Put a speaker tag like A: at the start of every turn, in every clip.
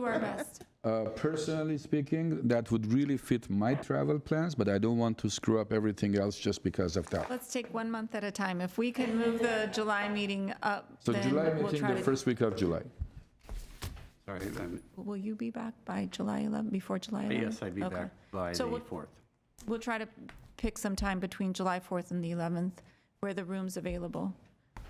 A: do our best.
B: Uh, personally speaking, that would really fit my travel plans, but I don't want to screw up everything else just because of that.
A: Let's take one month at a time. If we can move the July meeting up,
B: So
A: then
B: July
A: we'll
B: meeting,
A: try
B: the
A: to.
B: first week of July.
C: Sorry, um, I'm-
A: Will you be back by July 11, before July 11?
C: yes, I'd be
A: Okay.
C: back by the
A: So we'll-
C: 4th.
A: We'll try to pick some time between July 4th and the 11th where the room's available.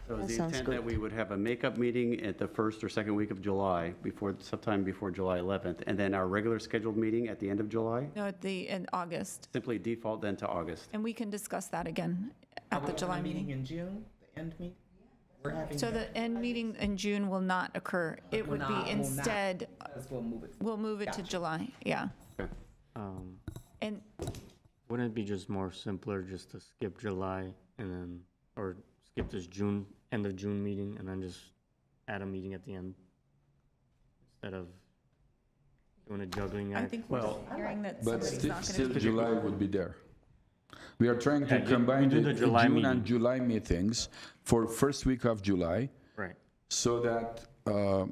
C: So the
D: sounds
C: intent that we would have a makeup meeting at the first or second week of July, before, sometime before July 11th, and then our regular scheduled meeting at the end of July,
A: No, at the, in August.
C: simply default then to August.
A: And we can discuss that again at the
E: Public
A: July
E: meeting
A: meeting.
E: in June, the end meeting? We're having
A: So the end meeting in June will not occur. It
E: Will
A: would
E: not- will
A: be
E: not.
A: instead,
E: Let's go move it.
A: we'll move it to July, yeah.
F: Um,
A: And
F: wouldn't it be just more simpler just to skip July and then, or skip this June, end of June meeting and then just add a meeting at the end? Instead of doing a juggling
A: I
F: act?
A: think we're
C: Well-
A: hearing that
B: But
A: somebody's
B: still,
A: not going
B: still
A: to.
B: July would be there. We are trying to
F: Yeah, ju-
B: combine
F: we do
B: the
F: the July
B: June and
F: meeting.
B: July meetings for first week of July
F: Right.
B: so that uh,
F: So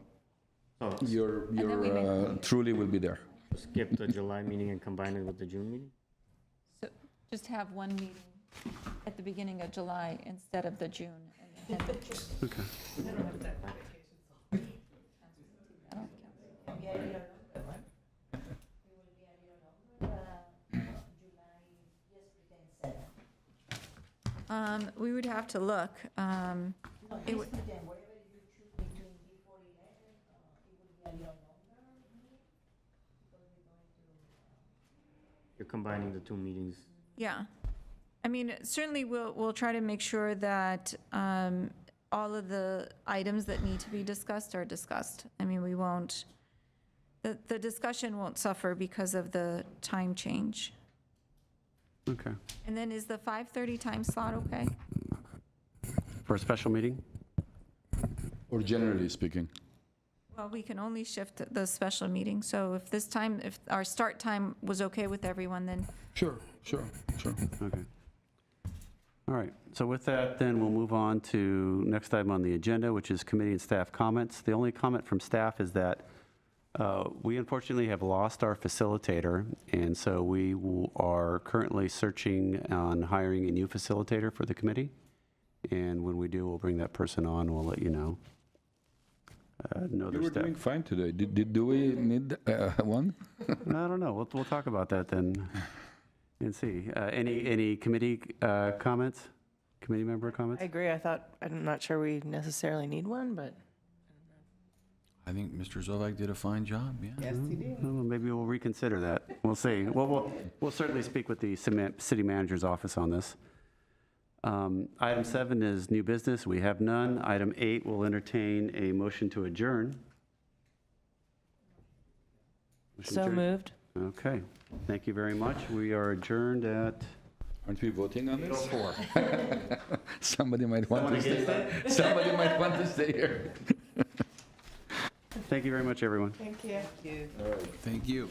B: your, your
A: we may-
B: uh, truly will be there.
F: skip the July meeting and combine it with the June meeting?
A: So Just have one meeting at the beginning of July instead of the June. and the end of June. I don't care. Um, We would have to look. um, it would-
F: You're combining the two meetings.
A: Yeah. I mean, certainly we'll, we'll try to make sure that um, all of the items that need to be discussed are discussed. I mean, we won't, the, the discussion won't suffer because of the time change.
C: Okay.
A: And then is the 5:30 time slot okay?
C: For a special meeting?
B: Or generally speaking.
A: Well, we can only shift the special meeting, so if this time, if our start time was okay with everyone, then
B: Sure, sure, sure.
C: Okay. All right, so with that, then we'll move on to next item on the agenda, which is committee and staff comments. The only comment from staff is that uh, we unfortunately have lost our facilitator, and so we w- are currently searching on hiring a new facilitator for the committee. And when we do, we'll bring that person on, we'll let you know. Uh, No
B: You
C: other
B: were
C: step.
B: doing fine today. Did, did, do we need uh, one?
C: I don't know, we'll, we'll talk about that then and see. Uh, Any, any committee uh, comments? Committee member comments?
D: I agree. I thought, I'm not sure we necessarily need one, but
G: I think Mr. Zovak did a fine job, yeah.
E: Yes, he did.
C: Well, Maybe we'll reconsider that. We'll see. Well, we'll, we'll certainly speak with the cima- city manager's office on this. Um, Item seven is new business. We have none. Item eight, we'll entertain a motion to adjourn. Motion
D: so
C: adjourned.
D: moved.
C: Okay. Thank you very much. We are adjourned at
B: Aren't we voting on this?
C: 4:00.
B: Somebody might want to stay. Somebody might want to stay here.
C: Thank you very much, everyone.
G: Thank you.